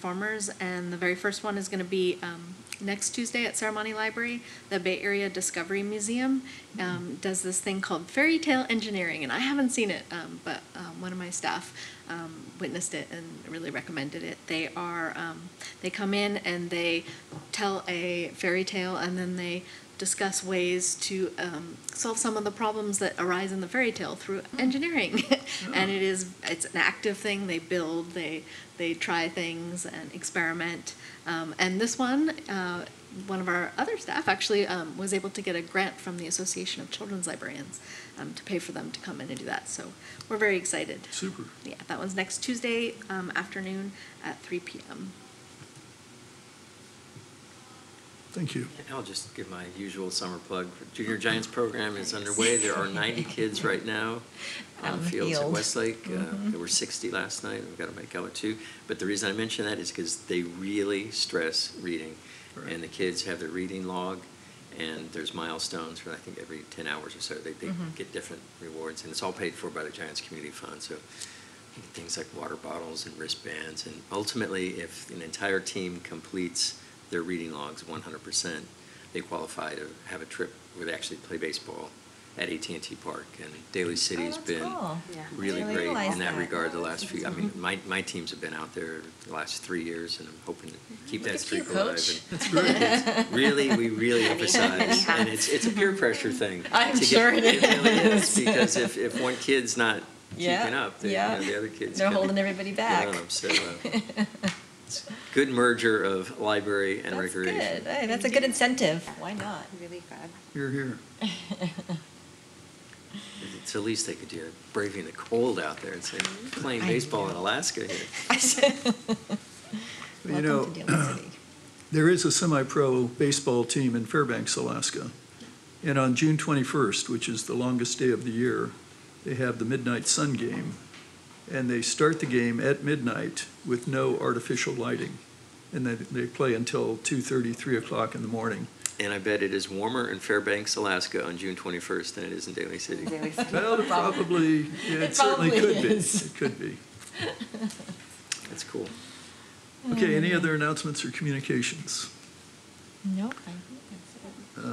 performers, and the very first one is going to be um, next Tuesday at Ceremony Library. The Bay Area Discovery Museum um, does this thing called fairy tale engineering, and I haven't seen it, um, but um, one of my staff um, witnessed it and really recommended it. They are um, they come in and they tell a fairy tale, and then they discuss ways to um, solve some of the problems that arise in the fairy tale through engineering. and it is it's an active thing. They build, they they try things and experiment. Um, and this one, uh, one of our other staff actually um, was able to get a grant from the Association of Children's Librarians um, to pay for them to come in and do that. So we're very excited. Super. Yeah, that one's next Tuesday um, afternoon at 3 p.m. Thank you. I'll just give my usual summer plug. Junior Giants program is underway. There are 90 kids right now on Out in the the fields at field. Westlake. Uh, There were 60 last night. We've got to make other two. But the reason I mention that is because they really stress reading. Right. And the kids have their reading log, and there's milestones for, I think, every 10 hours or so. They, they get different rewards, and it's all paid for by the Giants Community Fund. So you get things like water bottles and wristbands. And ultimately, if an entire team completes their reading logs 100%, they qualify to have a trip where they actually play baseball at AT&T Park. And Daly City's Oh, that's been cool. Yeah. really I didn't great realize in that that. regard the last few, I mean, my, my teams have been out there the last three years, and I'm hoping to keep Look that at you, streak alive. coach. and- it's Really, we really emphasize, and it's, it's a peer pressure thing. I'm to get- sure it really is. Because if, if one kid's not Yeah, keeping up, then, you yeah. know, the other kids. They're can holding everybody get back. on 'em. So, uh, it's a good merger of library and That's recreation. good. Hey, that's a good incentive. Why not? Really good. Here, here. It's the least they could do, braving the cold out there and saying, playing Mm-hmm. I baseball know. in Alaska here. You know, Welcome to Dillon City. there is a semi-pro baseball team in Fairbanks, Alaska. And on June 21st, which is the longest day of the year, they have the Midnight Sun Game. And they start the game at midnight with no artificial lighting. And then they play until 2:30, 3 o'clock in the morning. And I bet it is warmer in Fairbanks, Alaska on June 21st than it is in Daly City. Really good. Well, it probably, yeah, it It certainly probably could be. is. It could be. That's cool. Okay, Hmm. any other announcements or communications? Nope. I think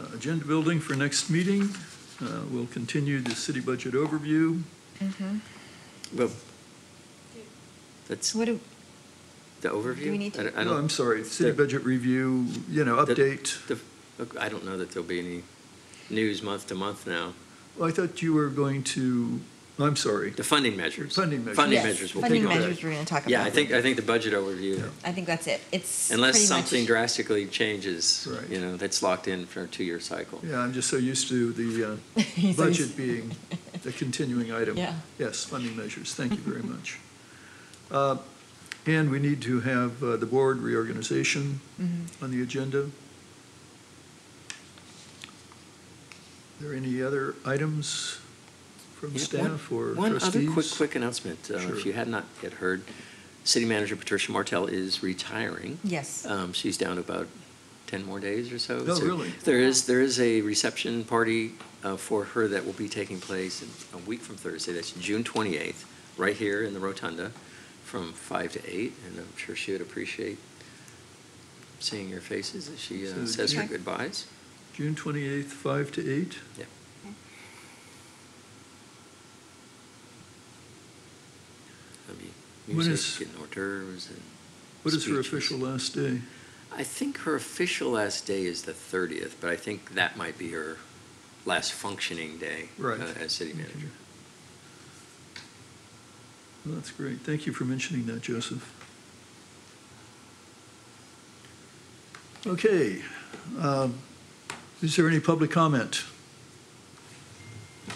that's Uh, Agenda building for next meeting. Uh, We'll continue the city budget overview. Well, it. that's What do, the overview? Do we need to- I don't- I No, don't- I'm sorry, city the- budget review, you know, the- update. the- look, I don't know that there'll be any news month to month now. Well, I thought you were going to, I'm sorry. The funding measures. Funding measures. Funding Yes, measures will funding pick up. measures we're gonna talk Yeah, about. I think, I think the budget overview, I think that's it. It's unless pretty much- something drastically changes, Right. you know, that's locked in for a two-year cycle. Yeah, I'm just so used to the uh, He's so used- budget being the continuing item. Yeah. Yes, funding measures, thank you very much. Uh, And we need to have uh, the board reorganization on the agenda. Are there any other items from Yeah, staff one- or One trustees? other quick, quick announcement, uh, Sure. if you had not yet heard, City Manager Patricia Martell is retiring. Yes. Um, She's down to about 10 more days or so. Oh, So really? There is, there is a reception party uh, for her that will be taking place in a week from Thursday, that's June 28th, right here in the Rotunda, from 5 to 8, and I'm sure she would appreciate seeing your faces as she So uh, says her June- goodbyes. June 28th, 5 to 8? Yeah. There'll be What is- music and hors d'oeuvres and. What is her speeches. official last day? I think her official last day is the 30th, but I think that might be her last functioning day Right. uh, as city manager. Well, That's great. Thank you for mentioning that, Joseph. Okay. um, Is there any public comment?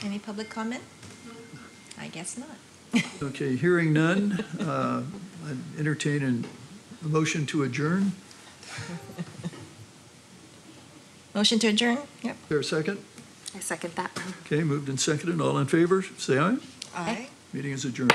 Any public comment? I guess not. Okay, hearing none, uh, I'd entertain an- a motion to adjourn. Is Motion to adjourn? Yep. there a second? I second that. Okay, moved and seconded. All in favor, say aye. Aye. Meeting is adjourned.